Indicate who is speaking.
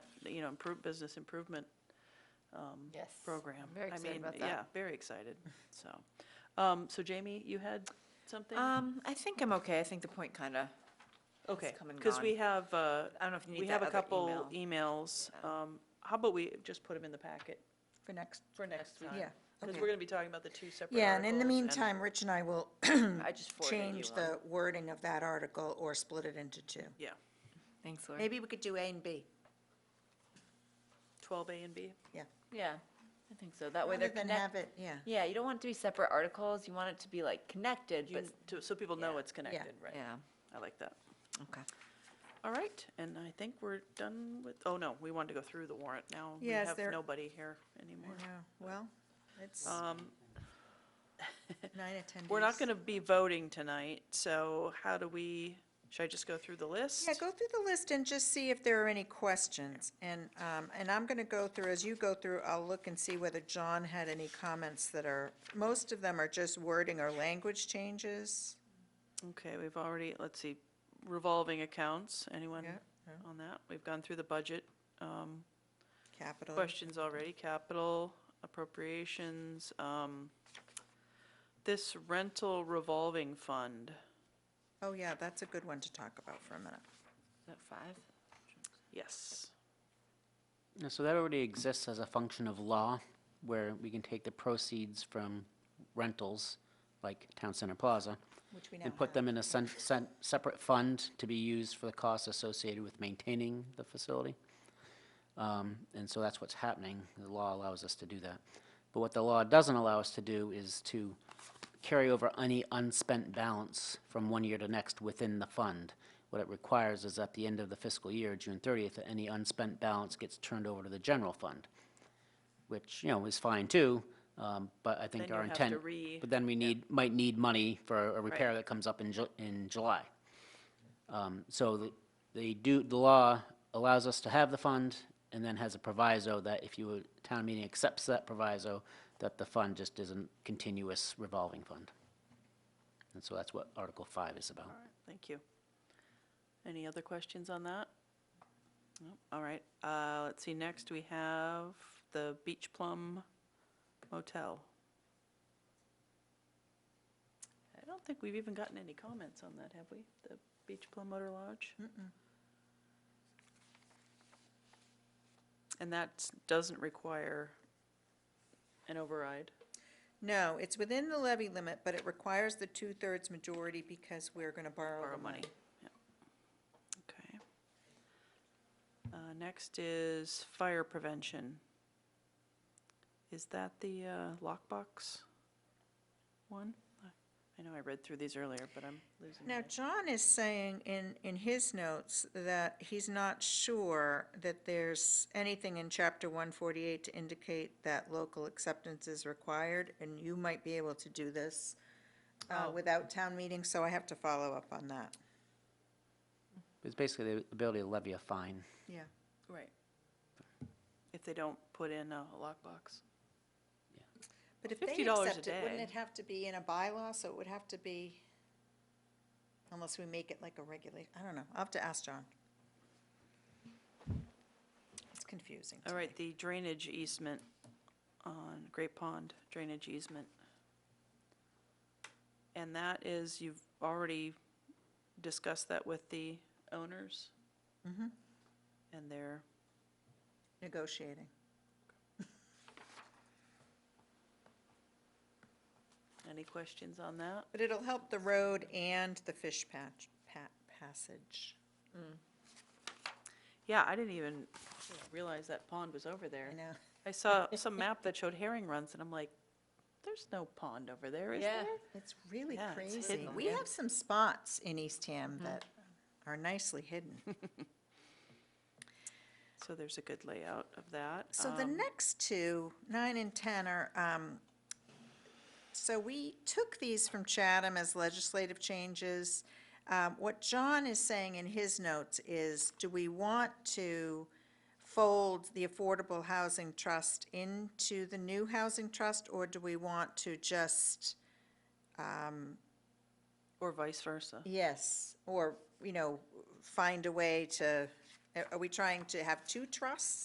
Speaker 1: you know, improve, business improvement
Speaker 2: Yes.
Speaker 1: program.
Speaker 2: I'm very
Speaker 1: I
Speaker 2: excited
Speaker 1: mean,
Speaker 2: about
Speaker 1: Yeah,
Speaker 2: that.
Speaker 1: very excited, so. Um, so Jamie, you had something?
Speaker 2: Um, I think I'm okay. I think the point kind of,
Speaker 1: Okay,
Speaker 2: come and
Speaker 1: because we
Speaker 2: gone.
Speaker 1: have, uh,
Speaker 2: I don't know if you
Speaker 1: we
Speaker 2: need that
Speaker 1: have a
Speaker 2: other
Speaker 1: couple e-
Speaker 2: email.
Speaker 1: emails. Um, how about we just put them in the packet
Speaker 3: for next,
Speaker 1: for next week?
Speaker 3: yeah.
Speaker 1: Because
Speaker 3: okay.
Speaker 1: we're going to be talking about the two separate
Speaker 3: Yeah, and in the
Speaker 1: articles
Speaker 3: meantime, Rich and I will
Speaker 2: I just forwarded you
Speaker 3: change
Speaker 2: one.
Speaker 3: the wording of that article or split it into two.
Speaker 1: Yeah,
Speaker 2: Thanks, Lori.
Speaker 3: Maybe we could do A and B.
Speaker 1: twelve A and B.
Speaker 2: Yeah, I think so. That way
Speaker 3: Rather
Speaker 2: they're
Speaker 3: than
Speaker 2: connected.
Speaker 3: have it, yeah.
Speaker 2: Yeah, you don't want it to be separate articles. You want it to be like connected,
Speaker 1: You-
Speaker 2: but,
Speaker 1: to- So people know
Speaker 2: yeah,
Speaker 1: it's connected, right?
Speaker 2: yeah,
Speaker 1: I like that.
Speaker 2: okay.
Speaker 1: All right, and I think we're done with, oh, no, we wanted to go through the warrant now.
Speaker 3: Yes,
Speaker 1: We
Speaker 3: there-
Speaker 1: have nobody here anymore.
Speaker 3: I know. Well, it's
Speaker 1: Um,
Speaker 3: nine attendees.
Speaker 1: We're not going to be voting tonight, so how do we, should I just go through the list?
Speaker 3: Yeah, go through the list and just see if there are any questions. And, um, and I'm going to go through, as you go through, I'll look and see whether John had any comments that are, most of them are just wording or language changes.
Speaker 1: Okay, we've already, let's see, revolving accounts, anyone
Speaker 3: Yeah,
Speaker 1: on that? We've gone through the budget, um,
Speaker 3: Capital.
Speaker 1: questions already, capital appropriations, um, this rental revolving fund,
Speaker 3: Oh, yeah, that's a good one to talk about for a minute.
Speaker 2: Is that five?
Speaker 1: yes.
Speaker 4: Yeah, So that already exists as a function of law, where we can take the proceeds from rentals, like Town Center Plaza,
Speaker 3: Which we now
Speaker 4: and put
Speaker 3: have.
Speaker 4: them in a sen- sen- separate fund to be used for the costs associated with maintaining the facility. Um, And so that's what's happening. The law allows us to do that. But what the law doesn't allow us to do is to carry over any unspent balance from one year to next within the fund. What it requires is at the end of the fiscal year, June 30th, that any unspent balance gets turned over to the general fund, which, you know, is fine too, um, but I think
Speaker 1: Then
Speaker 4: our
Speaker 1: you have
Speaker 4: intent.
Speaker 1: to re-
Speaker 4: But then we need, might need money for a repair that comes up in Ju- in July. Um, So the- they do, the law allows us to have the fund and then has a proviso that if you, town meeting accepts that proviso, that the fund just is a continuous revolving fund. And so that's what Article 5 is about.
Speaker 1: Thank you. Any other questions on that? No? All right, uh, let's see, next we have the Beach Plum Motel. I don't think we've even gotten any comments on that, have we? The Beach Plum Motor Lodge? And that doesn't require an override?
Speaker 3: No, it's within the levy limit, but it requires the two-thirds majority because we're going to borrow
Speaker 1: borrow
Speaker 3: the
Speaker 1: money.
Speaker 3: money.
Speaker 1: Yeah. Okay. Uh, Next is fire prevention. Is that the uh, lockbox one? I- I know I read through these earlier, but I'm losing my.
Speaker 3: Now, John is saying in, in his notes that he's not sure that there's anything in Chapter 148 to indicate that local acceptance is required, and you might be able to do this uh,
Speaker 1: Oh.
Speaker 3: without town meeting, so I have to follow up on that.
Speaker 4: It's basically the ability to levy a fine.
Speaker 3: Yeah.
Speaker 1: Right. If they don't put in a lockbox.
Speaker 3: But if they
Speaker 1: $50 a
Speaker 3: accept it, wouldn't
Speaker 1: day.
Speaker 3: it have to be in a bylaw, so it would have to be, unless we make it like a regulate, I don't know, I'll have to ask John. It's confusing to
Speaker 1: All
Speaker 3: me.
Speaker 1: right, the drainage easement on Great Pond, drainage easement. And that is, you've already discussed that with the owners? Mm-hmm. And they're,
Speaker 3: Negotiating.
Speaker 1: any questions on that?
Speaker 3: But it'll help the road and the fish patch, pa- passage.
Speaker 1: Yeah, I didn't even realize that pond was over there.
Speaker 3: I know,
Speaker 1: I saw some map that showed herring runs, and I'm like, there's no pond over there, is
Speaker 2: Yeah.
Speaker 1: there?
Speaker 3: it's really
Speaker 1: Yeah, it's
Speaker 3: crazy.
Speaker 1: hidden,
Speaker 3: We
Speaker 1: yeah. Mm-hmm.
Speaker 3: have some spots in Eastham that are nicely hidden.
Speaker 1: So there's a good layout of that.
Speaker 3: So the
Speaker 1: Um,
Speaker 3: next two, nine and 10 are, um, so we took these from Chatham as legislative changes. Um, What John is saying in his notes is, do we want to fold the Affordable Housing Trust into the new Housing Trust? Or do we want to just,
Speaker 1: Or vice versa.
Speaker 3: yes, or, you know, find a way to Are- Are we trying to have two trusts?